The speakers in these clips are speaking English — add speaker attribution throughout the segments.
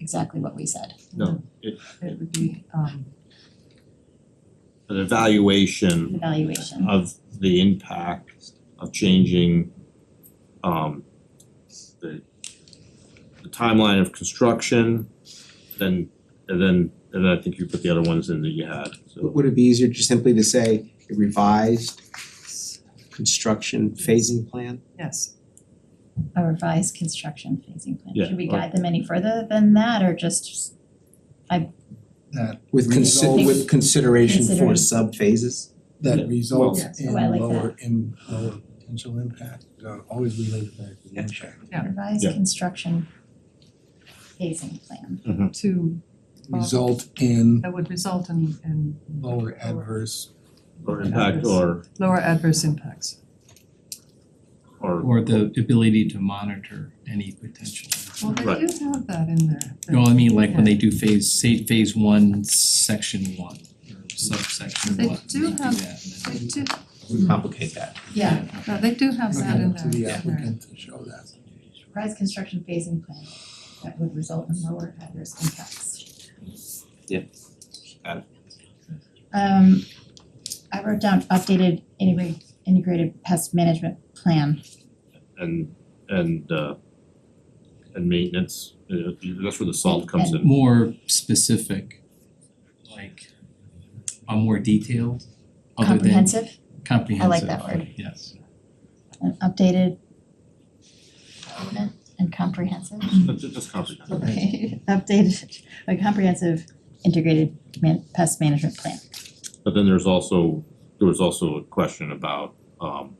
Speaker 1: exactly what we said.
Speaker 2: No, it-
Speaker 1: It would be um
Speaker 2: an evaluation
Speaker 1: evaluation.
Speaker 2: of the impact of changing um the the timeline of construction, then and then and then I think you put the other ones in that you had, so
Speaker 3: Would it be easier just simply to say a revised construction phasing plan?
Speaker 4: Yes,
Speaker 1: A revised construction phasing plan.
Speaker 2: Yeah,
Speaker 1: Should we
Speaker 2: or-
Speaker 1: guide them any further than that or just
Speaker 5: that
Speaker 3: With consi-
Speaker 5: Resolve.
Speaker 3: with consideration for
Speaker 1: Considering.
Speaker 3: sub phases?
Speaker 2: Yeah.
Speaker 5: that results
Speaker 4: Yes.
Speaker 5: in
Speaker 1: Oh, I like
Speaker 5: lower in lower potential impact, uh, always related back to the
Speaker 4: Yeah.
Speaker 5: impact.
Speaker 4: Yeah.
Speaker 1: revised
Speaker 2: Yeah.
Speaker 1: construction phasing plan?
Speaker 4: to, Well-
Speaker 5: Result in
Speaker 4: that would result in in
Speaker 5: lower adverse
Speaker 2: or impact
Speaker 4: Yeah.
Speaker 2: or
Speaker 4: lower adverse impacts.
Speaker 2: or
Speaker 6: Or the ability to monitor any potential.
Speaker 4: Well, they
Speaker 2: Right.
Speaker 4: do have that in there.
Speaker 6: No, I mean, like when they do phase, say phase one, section one, or subsection
Speaker 4: They
Speaker 6: one, they
Speaker 4: do
Speaker 6: do
Speaker 4: have-
Speaker 6: that and
Speaker 4: They
Speaker 6: then-
Speaker 4: do,
Speaker 3: We complicate that.
Speaker 1: Yeah,
Speaker 4: no, they do have that in
Speaker 5: impact
Speaker 4: there.
Speaker 5: to
Speaker 4: in
Speaker 5: the
Speaker 4: there.
Speaker 5: applicant to show that.
Speaker 1: revised construction phasing plan that would result in lower adverse impacts.
Speaker 3: Yep. Got
Speaker 1: it. Um I wrote down updated integrated integrated pest management plan.
Speaker 2: and and uh and maintenance, uh, that's where the salt comes in.
Speaker 6: More specific, like, uh, more detailed, other than
Speaker 1: Comprehensive?
Speaker 6: comprehensive.
Speaker 1: that word.
Speaker 6: Yes.
Speaker 1: an updated document and comprehensive.
Speaker 2: That's just comprehensive.
Speaker 1: Okay, updated, a comprehensive integrated man- pest management plan.
Speaker 2: But then there's also, there was also a question about um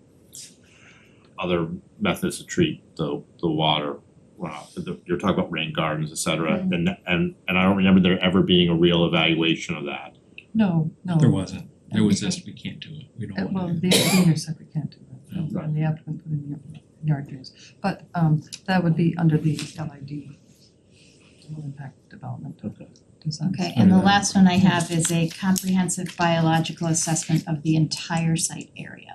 Speaker 2: other methods to treat the the water. runoff. The- you're talking about rain gardens, et cetera, and and and I don't remember there ever being a real evaluation of that.
Speaker 4: No, no.
Speaker 6: There wasn't, there was just, we can't do it, we
Speaker 4: Uh,
Speaker 6: don't
Speaker 4: Well,
Speaker 6: want to.
Speaker 4: the engineer said we can't do
Speaker 6: Yeah.
Speaker 4: that, and the applicant put in yard- yard drains. But um that would be under the LID, low impact development
Speaker 2: Okay.
Speaker 4: design.
Speaker 1: Okay, and the last one I have is a comprehensive biological assessment of the entire site area.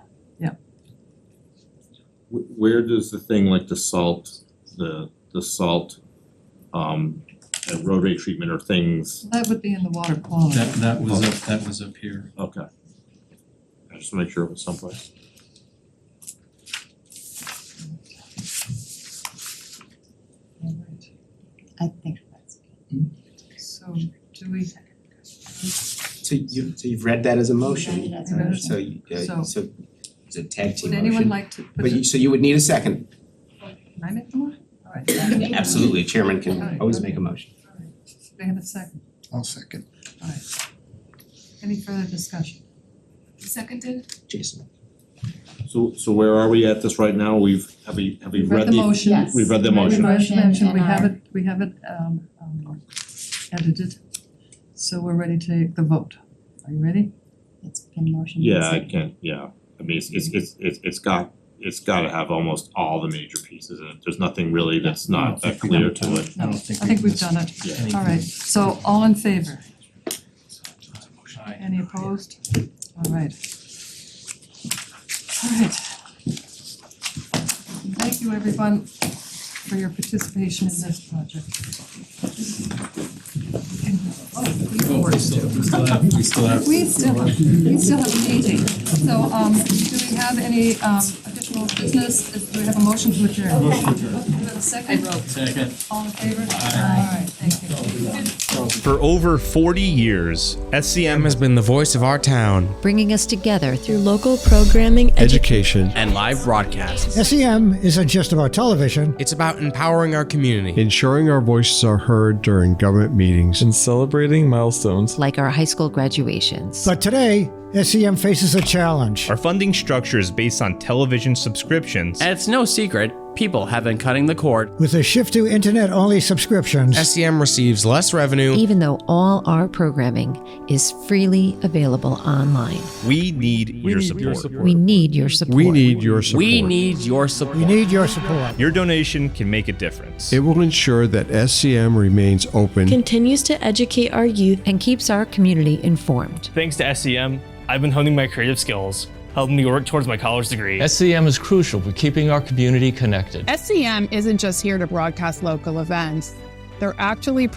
Speaker 2: Wh- Where does the thing like the salt, the the salt um and roadway treatment or things,
Speaker 4: That would be in the water quality.
Speaker 6: That that was up, that was up here.
Speaker 2: okay. I just wanna make sure it was someplace.
Speaker 4: All right.
Speaker 1: I think that's.
Speaker 4: So do we,
Speaker 3: So you, so you've read that as a
Speaker 1: Read it
Speaker 3: motion,
Speaker 1: as
Speaker 4: a
Speaker 3: uh,
Speaker 4: motion.
Speaker 3: so you,
Speaker 4: So-
Speaker 3: uh, so it's a tag team
Speaker 4: would
Speaker 3: motion.
Speaker 4: anyone like to put
Speaker 3: But
Speaker 4: it?
Speaker 3: you, so you would need a second.
Speaker 4: Can I make the motion? All right.
Speaker 3: Absolutely, chairman can
Speaker 4: Alright,
Speaker 3: always
Speaker 4: okay.
Speaker 3: make a motion.
Speaker 4: All right. Do They have a second.
Speaker 5: I'll second.
Speaker 4: All right. Any further discussion?
Speaker 7: Seconded?
Speaker 3: Jason,
Speaker 2: So so where are we at this right now? We've, have we, have we
Speaker 4: We've
Speaker 2: read the
Speaker 4: motion.
Speaker 1: Yes.
Speaker 2: we've read the
Speaker 4: Read
Speaker 2: motion.
Speaker 1: Motion Uh, and
Speaker 4: We have
Speaker 1: our-
Speaker 4: it, we have it um um edited. So we're ready to take the vote. Are you ready?
Speaker 1: It's been motioned. and
Speaker 2: Yeah, I
Speaker 1: seconded.
Speaker 2: can't, yeah, I mean, it's it's it's it's it's got, it's gotta have almost all the major pieces in it, there's nothing really that's not that clear to it.
Speaker 6: I don't think
Speaker 4: I think
Speaker 6: we've
Speaker 4: we've done it.
Speaker 2: Yeah.
Speaker 6: anything.
Speaker 4: All right, so all in favor?
Speaker 6: Aye.
Speaker 4: Any opposed? All right. All right. Thank you, everyone, for your participation in this project. Oh, we have
Speaker 6: Oh,
Speaker 4: work to
Speaker 6: we
Speaker 4: do.
Speaker 6: still, we still have, we still have.
Speaker 4: We still, we still have a meeting, so um do we have any um additional business, do we have a motion to adjourn? Motion to adjourn. Do we have a second?
Speaker 6: Second.
Speaker 4: All in favor? All right, thank you.
Speaker 8: For over 40 years, SCM
Speaker 9: has been the voice of our town.
Speaker 10: bringing us together through local programming,
Speaker 8: education,
Speaker 9: And live broadcasts.
Speaker 11: SEM isn't just about television.
Speaker 9: It's about empowering our community.
Speaker 8: ensuring our voices are heard during government meetings, and celebrating milestones.
Speaker 10: like our high school graduations.
Speaker 11: But today, SEM E faces a challenge.
Speaker 8: Our funding structure is based on television subscriptions.
Speaker 9: And it's no secret, people have been cutting the cord.
Speaker 11: With a shift to internet only subscriptions,
Speaker 9: SEM receives less revenue.
Speaker 10: Even though all our programming is freely available online,
Speaker 8: We need your support.
Speaker 10: we need your support.
Speaker 8: your support.
Speaker 9: We need your support.
Speaker 11: we need your support.
Speaker 8: your donation can make a difference.
Speaker 11: It will ensure that SCM remains open.
Speaker 7: Continues to educate our youth
Speaker 10: and keeps our community informed.
Speaker 8: Thanks to SEM, I've been honing my creative skills, helping me work towards my college degree.
Speaker 9: SEM E is crucial for keeping our community connected.
Speaker 7: SCM isn't just here to broadcast local events. They're actually